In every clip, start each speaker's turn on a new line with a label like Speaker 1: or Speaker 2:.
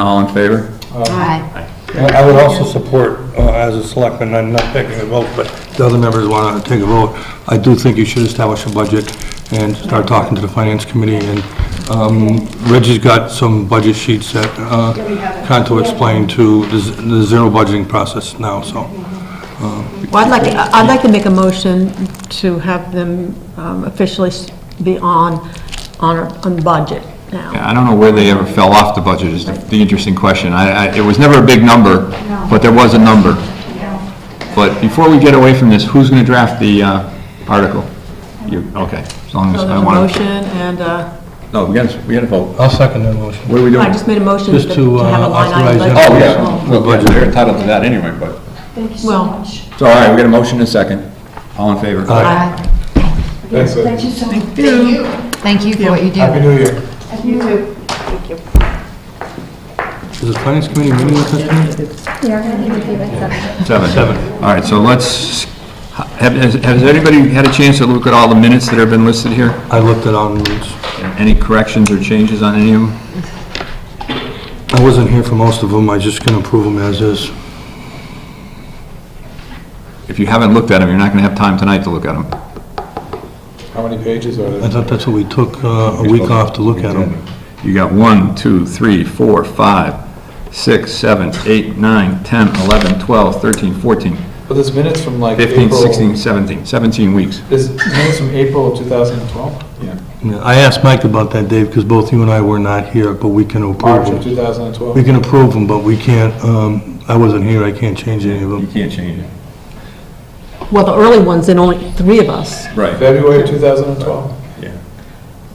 Speaker 1: All in favor?
Speaker 2: Aye.
Speaker 3: I I would also support, uh, as a selectman, I'm not taking a vote, but the other members want to take a vote. I do think you should establish a budget and start talking to the finance committee, and um, Reggie's got some budget sheets that uh, Conto explained to the z- the zero budgeting process now, so.
Speaker 4: Well, I'd like, to- I'd like to make a motion to have them um, officially s- be on, on, on budget now.
Speaker 1: I don't know where they ever fell off the budget is the- the interesting question. I, I, it was never a big number, but there was a number. But before we get away from this, who's gonna draft the, uh, article? You, okay, as long as
Speaker 4: So
Speaker 1: I
Speaker 4: there's a
Speaker 1: want
Speaker 4: motion,
Speaker 1: to.
Speaker 4: and uh,
Speaker 1: No, we gotta, we gotta vote.
Speaker 3: I'll second that motion.
Speaker 1: What are we doing?
Speaker 4: I just made a motion to
Speaker 3: Just to,
Speaker 4: to have a
Speaker 3: uh,
Speaker 4: line item.
Speaker 3: authorize
Speaker 4: budget.
Speaker 1: Oh, yeah, well, yeah, they're entitled to that anyway, but.
Speaker 2: Thank you so
Speaker 4: Well-
Speaker 2: much.
Speaker 1: So, all right, we got a motion and a second. All in favor?
Speaker 3: Aye.
Speaker 4: Aye.
Speaker 2: Thank you so much. Thank you.
Speaker 5: Thank you for what you do.
Speaker 3: Happy New Year.
Speaker 2: You too.
Speaker 3: Is the finance committee meeting with us now?
Speaker 1: Seven.
Speaker 3: Seven.
Speaker 1: All right, so let's, have, has has everybody had a chance to look at all the minutes that have been listed here?
Speaker 3: I looked it on, it's-
Speaker 1: Any corrections or changes on any of them?
Speaker 3: I wasn't here for most of them, I just can approve them as is.
Speaker 1: If you haven't looked at them, you're not going to have time tonight to look at them.
Speaker 6: How many pages are
Speaker 3: I
Speaker 6: there?
Speaker 3: thought that's what we took uh, a week off to look at them.
Speaker 1: You got 1, 2, 3, 4, 5, 6, 7, 8, 9, 10, 11, 12, 13, 14,
Speaker 6: But there's minutes from like
Speaker 1: 15,
Speaker 6: April.
Speaker 1: 16, 17, 17 weeks.
Speaker 6: There's minutes from April of 2012? Yeah.
Speaker 3: Yeah, I asked Mike about that, Dave, because both you and I were not here, but we can
Speaker 6: March
Speaker 3: approve
Speaker 6: of
Speaker 3: them.
Speaker 6: 2012?
Speaker 3: We can approve them, but we can't, um, I wasn't here, I can't change any of
Speaker 1: You
Speaker 3: them.
Speaker 1: can't change it.
Speaker 4: Well, the early ones, and only three of us.
Speaker 1: Right.
Speaker 6: February of 2012?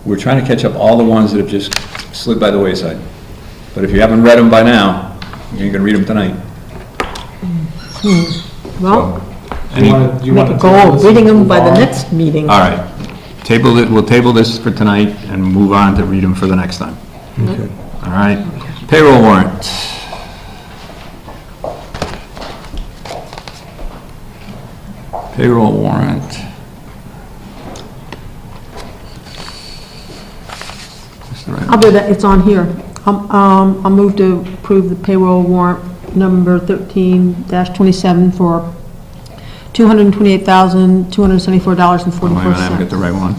Speaker 1: We're trying to catch up all the ones that have just slid by the wayside. But if you haven't read them by now, you're going to read them tonight.
Speaker 4: Well,
Speaker 6: Do you wanna- do you
Speaker 4: make
Speaker 6: wanna
Speaker 4: a
Speaker 6: table
Speaker 4: goal
Speaker 6: this
Speaker 4: of reading them
Speaker 6: and
Speaker 4: by the
Speaker 6: move on?
Speaker 4: next meeting.
Speaker 1: All right. Table it, we'll table this for tonight and move on to read them for the next time.
Speaker 3: Okay.
Speaker 1: All right. Payroll warrant. Payroll warrant. That's the right
Speaker 4: I'll do that, it's on here. Um, um, I'll move to approve the payroll warrant number 13-27 for
Speaker 1: Wait a minute, I haven't got the
Speaker 4: $228,274.44.
Speaker 1: right one.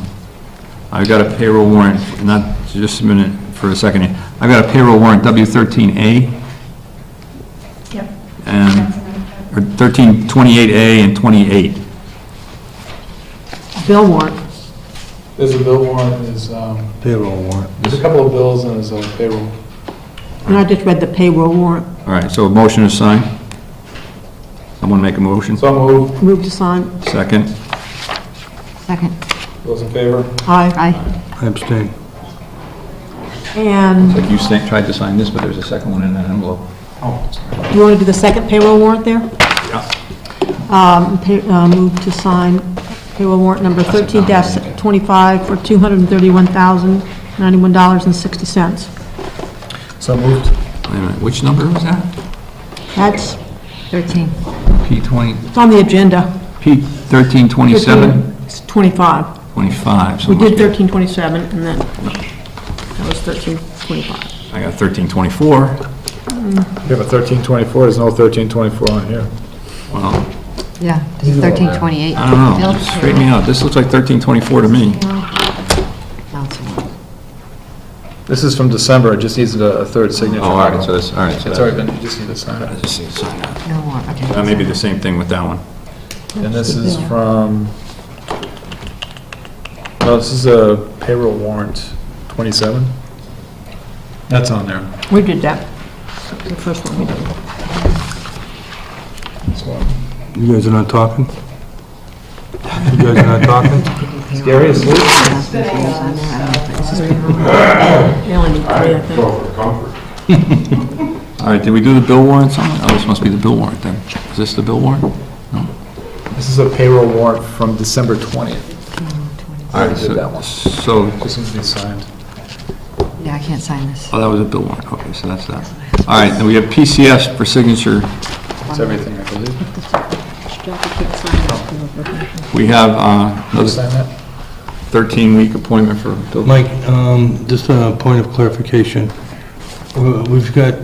Speaker 1: I've got a payroll warrant, not, just a minute, for a second. here. I've got a payroll warrant, W13A.
Speaker 2: Yep.
Speaker 1: And, or 1328A and 28.
Speaker 4: Bill warrant.
Speaker 6: There's a bill warrant, there's, um,
Speaker 3: Payroll warrant.
Speaker 6: there's a couple of bills and there's a payroll.
Speaker 4: And I just read the payroll warrant.
Speaker 1: All right, so a motion is signed. Someone make a motion?
Speaker 6: So move,
Speaker 4: Move to sign.
Speaker 1: Second.
Speaker 5: Second.
Speaker 6: those in favor?
Speaker 4: Aye.
Speaker 5: Aye.
Speaker 3: I abstain.
Speaker 4: And
Speaker 1: Like you sa- tried to sign this, but there's a second one in that envelope. Oh,
Speaker 4: you want to do the second payroll warrant there? Um, pay- uh, Move to sign payroll warrant number 13-25 for $231,091.60.
Speaker 3: So moved.
Speaker 1: Wait a minute, which number was that?
Speaker 4: That's,
Speaker 5: 13.
Speaker 1: P20,
Speaker 4: it's on the agenda.
Speaker 1: P1327?
Speaker 4: 13, It's 25.
Speaker 1: 25. so
Speaker 4: We
Speaker 1: it must
Speaker 4: did
Speaker 1: be-
Speaker 4: 1327, and then, that was 1325.
Speaker 1: I got 1324.
Speaker 6: You have a 1324, there's no 1324 on here.
Speaker 1: Well,
Speaker 5: Yeah, 1328.
Speaker 1: I don't know, straighten me out, this looks like 1324 to me.
Speaker 6: This is from December, it just needs a a third signature.
Speaker 1: Oh, all right, so this, all right, so that,
Speaker 6: It's already been, you just need to sign
Speaker 1: I
Speaker 6: it.
Speaker 1: just need to sign that.
Speaker 5: No more, okay.
Speaker 1: That may be Uh, the same thing with that one.
Speaker 6: And this is from, no, this is a payroll warrant, 27? That's on there.
Speaker 4: We did that, the first one we did.
Speaker 6: That's one.
Speaker 3: You guys are not talking? You guys are not talking?
Speaker 6: Gary, is this-
Speaker 4: They only need three, I think.
Speaker 1: All right, did we do the bill warrant somewhere? Oh, this must be the bill warrant then. Is this the bill warrant?
Speaker 6: this is a payroll warrant from December 20th.
Speaker 1: All right,
Speaker 6: did that
Speaker 1: so,
Speaker 6: one.
Speaker 1: so,
Speaker 6: This needs to be signed.
Speaker 5: Yeah, I can't sign this.
Speaker 1: oh, that was a bill warrant, okay, so that's that. All right, then we have PCS for signature.
Speaker 6: It's everything, I believe.
Speaker 1: We have uh,
Speaker 6: You
Speaker 1: another
Speaker 6: sign that?
Speaker 1: 13-week appointment for Bill.
Speaker 3: Mike, um, just a point of clarification. Uh, We've got